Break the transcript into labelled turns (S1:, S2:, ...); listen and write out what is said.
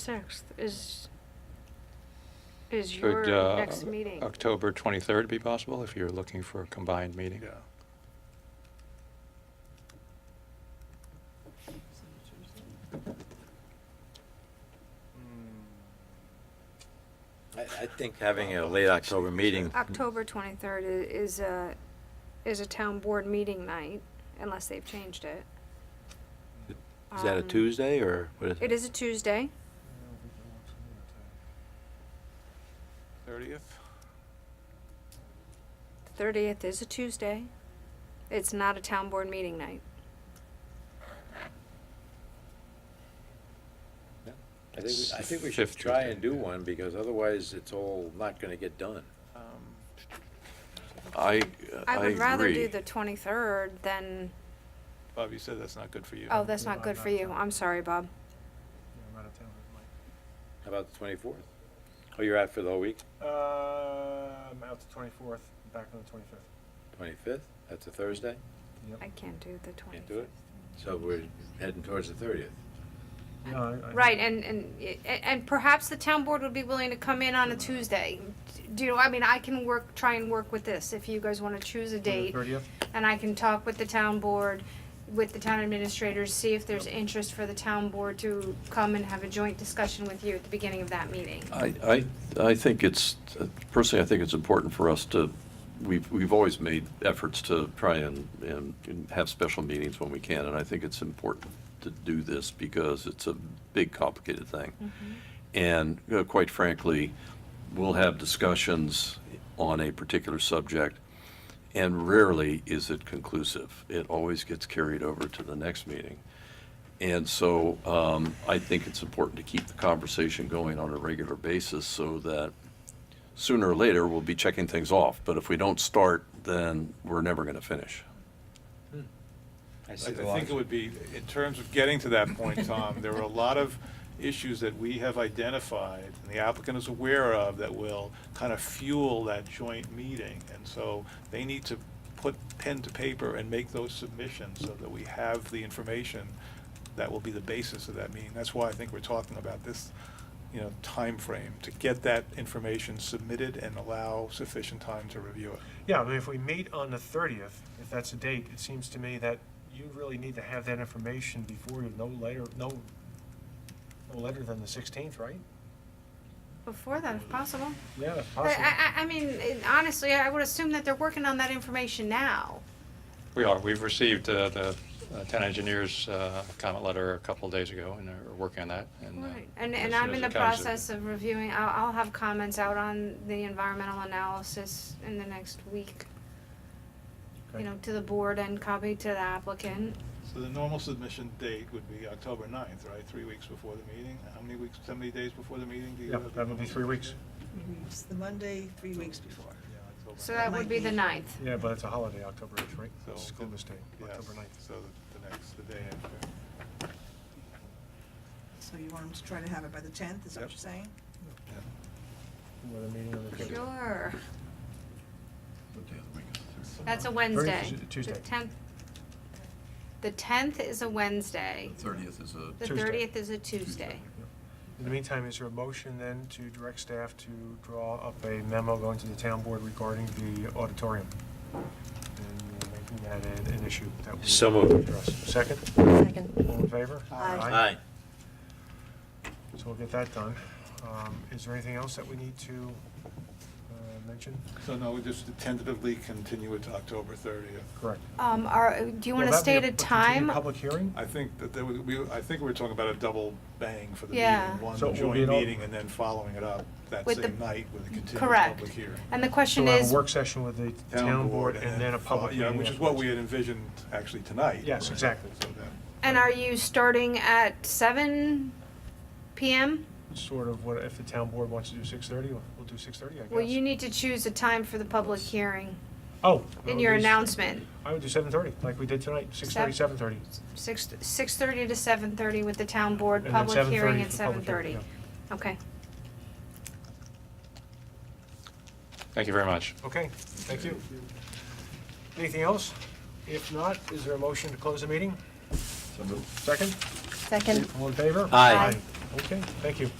S1: 6th is, is your
S2: Could uh,
S1: next meeting.
S2: October 23rd be possible, if you're looking for a combined meeting?
S3: Yeah.
S2: Hmm.
S4: I, I think having a late October meeting,
S1: October 23rd i- is a, is a town board meeting night, unless they've changed it.
S4: is that a
S1: Um,
S4: Tuesday or what is
S1: It
S4: it?
S1: is a Tuesday.
S2: 30th?
S1: The 30th is a Tuesday. It's not a town board meeting night.
S4: I think, we- I think we should
S2: Fifth
S4: try
S2: Tuesday.
S4: and do one because otherwise it's all not gonna get done.
S2: Um, I,
S1: I would rather do the 23rd than,
S2: Bob, you said that's not good for you.
S1: oh, that's
S3: no,
S1: not
S3: I'm
S1: good
S3: not
S1: for you.
S3: down.
S1: I'm sorry, Bob.
S3: I'm out of town with Mike.
S4: How about the twenty-fourth? Oh, you're out for the whole week?
S3: Uh, I'm out the twenty-fourth, back on the twenty-fifth.
S4: Twenty-fifth? That's a Thursday?
S1: I can't do the 23rd.
S4: Can't do it? So we're heading towards the thirtieth.
S3: Yep.
S1: Right, and, and, and- and perhaps the town board would be willing to come in on a Tuesday. Do, you know? I mean, I can work, try and work with this, if you guys wanna choose a date,
S3: Thirtieth?
S1: and I can talk with the town board, with the town administrators, see if there's interest for the town board to come and have a joint discussion with you at the beginning of that meeting.
S5: I, I, I think it's, personally, I think it's important for us to, we've, we've always made efforts to try and, and and have special meetings when we can, and I think it's important to do this because it's a big, complicated
S1: Mm-hmm.
S5: thing. And uh, quite frankly, we'll have discussions on a particular subject, and rarely is it conclusive. It always gets carried over to the next meeting. And so um, I think it's important to keep the conversation going on a regular basis so that sooner or later, we'll be checking things off. But if we don't start, then we're never going to finish.
S4: I
S6: I I think it would be, in terms of getting to that point, Tom, there are a lot of issues that we have identified, and the applicant is aware of, that will kind of fuel that joint meeting. And so they need to put pen to paper and make those submissions so that we have the information that will be the basis of that meeting. That's why I think we're talking about this, you know, time frame to get that information submitted and allow sufficient time to review it.
S3: Yeah, but if we meet on the thirtieth, if that's a date, it seems to me that you really need to have that information before you, no later, no, no later than the sixteenth, right?
S1: Before that, if possible.
S3: Yeah, that's
S1: I,
S3: possible.
S1: I, I mean, honestly, I would assume that they're working on that information now.
S2: We are, we've received uh, the uh, town engineer's uh, comment letter a couple of days ago, and are working on that. and, uh,
S1: Right, and,
S2: as
S1: and
S2: soon
S1: I'm
S2: as
S1: in the
S2: it comes, uh,
S1: process of reviewing, I'll, I'll have comments out on the environmental analysis in the next week, you
S3: Okay.
S1: know, to the board and copy to the applicant.
S6: So the normal submission date would be October ninth, right, three weeks before the meeting? How many weeks, how many days before the meeting do you
S3: Yep,
S6: have? the
S3: that would be
S6: normal
S3: three weeks.
S7: It's the Monday, three weeks before.
S6: submission? Yeah, October
S1: So that
S6: 9th.
S1: would be the ninth.
S3: Yeah, but it's a holiday, October eighth, right?
S6: So
S3: It's a School
S6: the-
S3: mistake,
S6: yes,
S3: October ninth.
S6: So the, the next, the day after.
S7: So you want them to try to have it by the tenth, is that what you're saying?
S3: With a meeting on the 30th.
S1: Sure. That's a Wednesday.
S3: Tuesday. Tuesday.
S1: The tenth. The tenth is a Wednesday.
S5: thirtieth is a.
S1: The
S3: Tuesday.
S1: thirtieth is a Tuesday.
S3: In the meantime, is there a motion then to direct staff to draw up a memo going to the town board regarding the auditorium? And uh, making that an, an issue that we.
S4: So moved.
S3: address. Second,
S8: Second.
S3: all in favor?
S7: Aye.
S4: Aye.
S3: So we'll get that done. Um, is there anything else that we need to, uh, mention?
S6: So no, we just tentatively continue it to October thirtieth.
S3: Correct.
S1: Um, are, do you
S3: Will
S1: wanna
S3: that be
S1: state a
S3: continued
S1: time?
S3: Public hearing?
S6: I think that there would, we, I think we're talking about a double bang for the
S1: Yeah.
S6: meeting. One
S3: So it will
S6: joint
S3: be an all-
S6: meeting and then following it up that
S1: With the-
S6: same night with a continued
S1: Correct.
S6: public hearing.
S1: And the
S3: So
S1: question
S3: we'll have
S1: is,
S3: a work session with the town board and then a public
S6: Yeah,
S3: meeting.
S6: which is what we
S3: afterwards.
S6: had envisioned actually tonight.
S3: Yes,
S6: right?
S3: exactly.
S6: So that-
S1: and are you starting at seven PM?
S3: Sort of what, if the town board wants to do six thirty, we'll do six thirty, I guess.
S1: Well, you need to choose a time for the public hearing
S3: Oh.
S1: in
S3: well,
S1: your
S3: these-
S1: announcement,
S3: I would do seven thirty, like we did tonight, six thirty, seven
S1: Seven-
S3: thirty.
S1: six, six-thirty to seven-thirty with the town board, public hearing at seven-thirty. Okay,
S2: Thank you very much.
S3: Okay, thank you. Anything else? If not, is there a motion to close the meeting? Second,
S8: Second.
S3: all in favor?
S4: Aye. Aye.
S3: Okay, thank you.